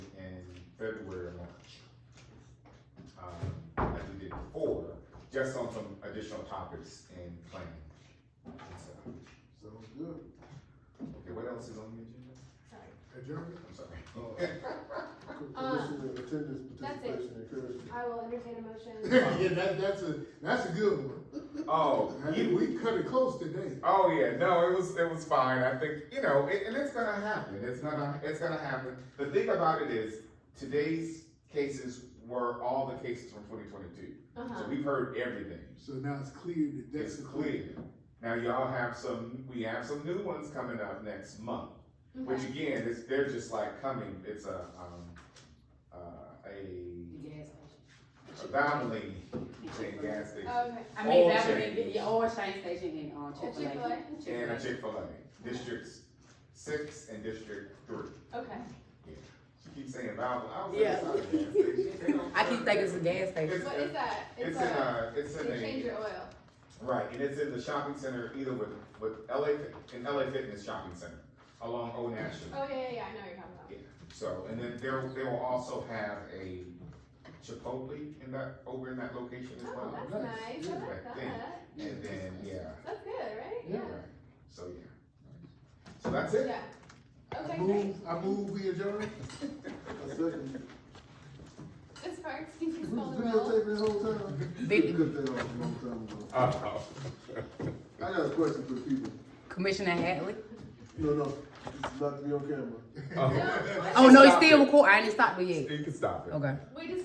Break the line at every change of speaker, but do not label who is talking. February or March. Um, as we did before, just on some additional topics in planning. and stuff.
Sounds good.
Okay, what else is on the agenda?
Adjournment?
I'm sorry.
Commission and attendance
Uh, that's it.
participation encouragement.
I will entertain a motion.
Yeah, that, that's a, that's a good one.
Oh,
I
you,
think we cut it close today.
Oh yeah, no, it was it was fine. I think you know, it, and it's gonna happen. It's gonna it's gonna happen. The thing about it is, today's cases were all the cases from 2022,
Uh-huh.
so we've heard everything.
So now it's clear that that's
It's
the
clear. Now y'all have some. We have some new ones coming up next month, which
Okay.
again, it's, they're just like coming. It's a um, uh, a
Gas
a Donnelly thing, gas station
Okay.
I mean,
Oil
that would
change.
be, yeah, oil change station and, um,
A Chick-fil-A?
Chick-fil-A.
and a Chick Fil A, districts six and district three.
Okay.
She keeps saying Valvoline. I was
Yeah.
like, it's not a gas station.
I keep thinking it's a gas station.
It's-
What is that?
It's
It's
in
a,
uh it's in
to change
a,
your oil.
right, and it's in the shopping center either with, with LA, Fit- in LA Fitness Shopping Center along Old National.
Oh, yeah, yeah, yeah, I know what you're talking about.
So, and then there, they will also have a Chipotle in that, over in that location as
Oh,
well.
that's
nice.
nice. I
Yeah,
like
I think.
that.
And then, yeah,
That's good, right?
Yeah.
right, so yeah. So that's it.
Yeah. Okay,
I
great.
move, I move, we adjourn. I second.
Ms. Parks, can you
We
call
was
the roll?
videotaping this whole time?
Video.
Good thing I was a long time ago.
Oh.
I got a question for the people.
Commissioner Hadley.
No, no, it's about to be on camera.
Oh.
Oh, no,
Stop
it's still
it.
recording. I didn't stop it yet.
You can stop it.
Okay.
We